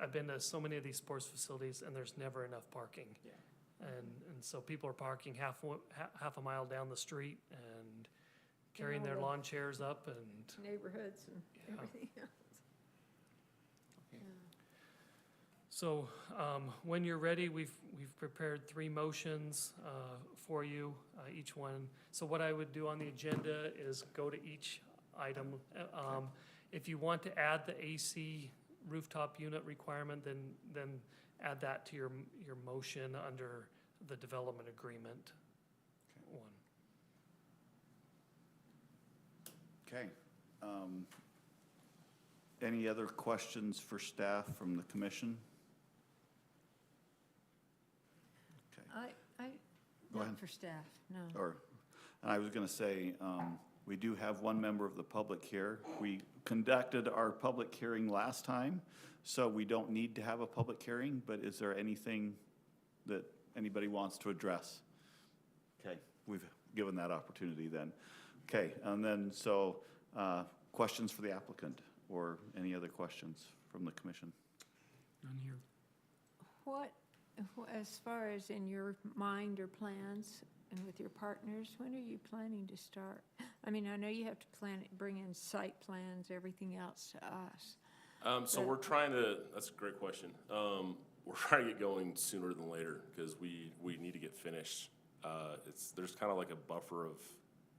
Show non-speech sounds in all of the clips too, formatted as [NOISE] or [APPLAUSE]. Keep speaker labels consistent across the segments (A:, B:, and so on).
A: I've been to so many of these sports facilities and there's never enough parking.
B: Yeah.
A: And, and so people are parking half, wa- ha- half a mile down the street and carrying their
C: all the-
A: lawn chairs up and, um,
C: neighborhoods and
A: yeah.
C: everything [LAUGHS] else.
B: Okay.
A: So, um, when you're ready, we've, we've prepared three motions, uh, for you, uh, each one. So what I would do on the agenda is go to each item. Uh, Um, if you want to add the AC rooftop unit requirement, then, then add that to your, your motion under the development agreement. One.
D: Okay. um, Any other questions for staff from the commission? Okay.
C: I, I,
D: Go ahead.
C: not for staff, no.
D: Or, and I was gonna say, um, we do have one member of the public here. We conducted our public hearing last time, so we don't need to have a public hearing, but is there anything that anybody wants to address? Okay, we've given that opportunity then. Okay, and then, so, uh, questions for the applicant or any other questions from the commission?
A: None here.
C: What, wh- as far as in your mind or plans and with your partners, when are you planning to start? I mean, I know you have to plan, it, bring in site plans, everything else to us.
E: Um, so
C: But-
E: we're trying to, that's a great question. Um, we're [LAUGHS] trying to get going sooner than later because we, we need to get finished. Uh, it's, there's kind of like a buffer of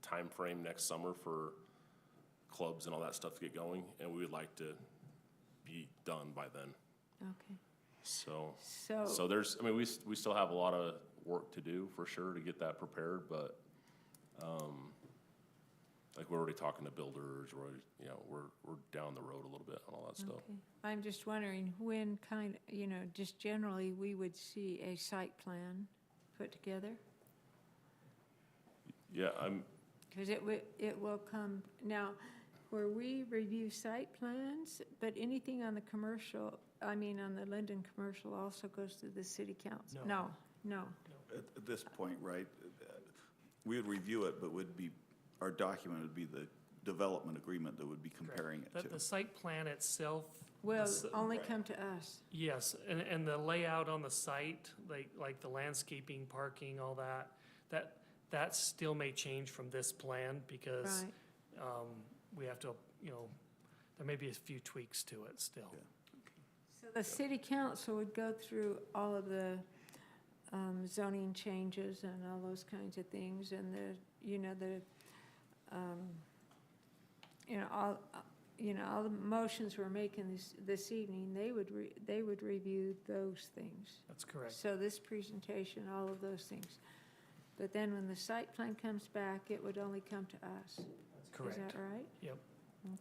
E: time frame next summer for clubs and all that stuff to get going, and we would like to be done by then.
C: Okay,
E: So, so
C: so,
E: there's, I mean, we, s- we still have a lot of work to do for sure to get that prepared, but, um, like we're already talking to builders, we're, already- you know, we're, we're down the road a little bit on all that stuff.
C: okay. I'm just wondering when kind, you know, just generally, we would see a site plan put together?
E: Yeah, I'm,
C: Because it will, it will come, now, where we review site plans, but anything on the commercial, I mean, on the Linden commercial also goes through the city council?
A: No.
C: No,
D: At, at this point, right, uh, we would review it, but would be, our document would be the development agreement that would be comparing it
A: The, the
D: to.
A: site plan itself
C: will
A: This-
C: only come to us.
A: Yes, and, and the layout on the site, like, like the landscaping, parking, all that, that, that still may change from this plan because,
C: Right,
A: um, we have to, you know, there may be a few tweaks to it still.
D: Yeah.
C: so the city council would go through all of the um, zoning changes and all those kinds of things, and the, you know, the, um, you know, all, you know, all the motions we're making this, this evening, they would, re- they would review those things.
A: That's correct.
C: So this presentation, all of those things. But then when the site plan comes back, it would only come to us. Is
A: Correct.
C: that right?
A: Yep.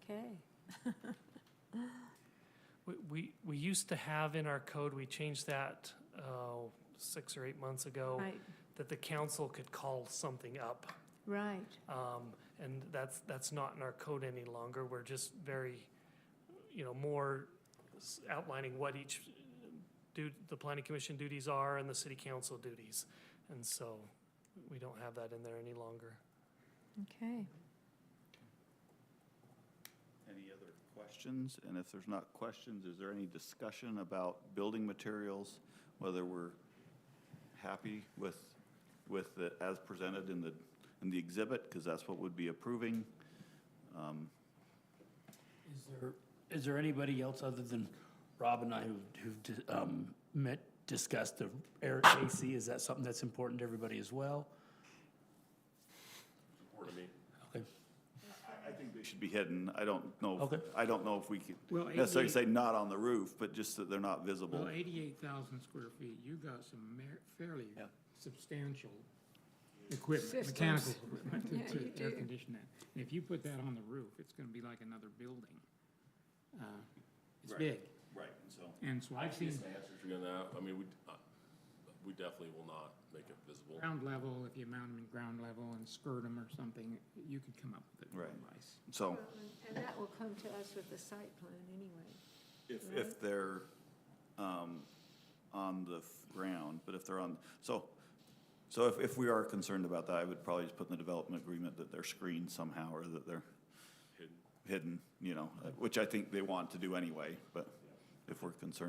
C: Okay.
A: We, we, we used to have in our code, we changed that, uh, six or eight months ago,
C: Right,
A: that the council could call something up.
C: right.
A: Um, and that's, that's not in our code any longer. We're just very, you know, more s- outlining what each do, the planning commission duties are and the city council duties. And so we don't have that in there any longer.
C: Okay.
D: Any other questions? And if there's not questions, is there any discussion about building materials? Whether we're happy with, with the, as presented in the, in the exhibit, because that's what would be approving? Um,
F: Is there, is there anybody else other than Rob and I who- who've di- um, met, discussed the air AC? Is that something that's important to everybody as well?
E: important to me.
F: Okay,
D: I think they should be hidden. I don't know,
F: Okay.
D: I don't know if we could
G: Well,
D: necessarily say
G: 88
D: not on the roof, but just that they're not visible.
G: Well, eighty-eight thousand square feet, you got some mer- fairly
F: Yeah.
G: substantial equipment,
C: [LAUGHS]
G: mechanical
C: Systems.
G: equipment
C: Yeah,
G: to,
C: you
G: to air
C: do.
G: condition that. And if you put that on the roof, it's gonna be like another building. Uh, It's
D: Right.
G: big,
D: Right, and so.
G: and so I've seen
E: I answer to you on that. I mean, we, uh, we definitely will not make it visible.
G: ground level, if you mount them in ground level and skirt them or something, you could come up with a
D: Right.
G: device.
D: So
C: And that will come to us with the site plan anyway.
D: if, if they're, um, on the f- ground, but if they're on, so, so if, if we are concerned about that, I would probably just put in the development agreement that they're screened somehow or that they're
E: Hidden.
D: hidden, you know, uh, which I think they want to do anyway, but if we're concerned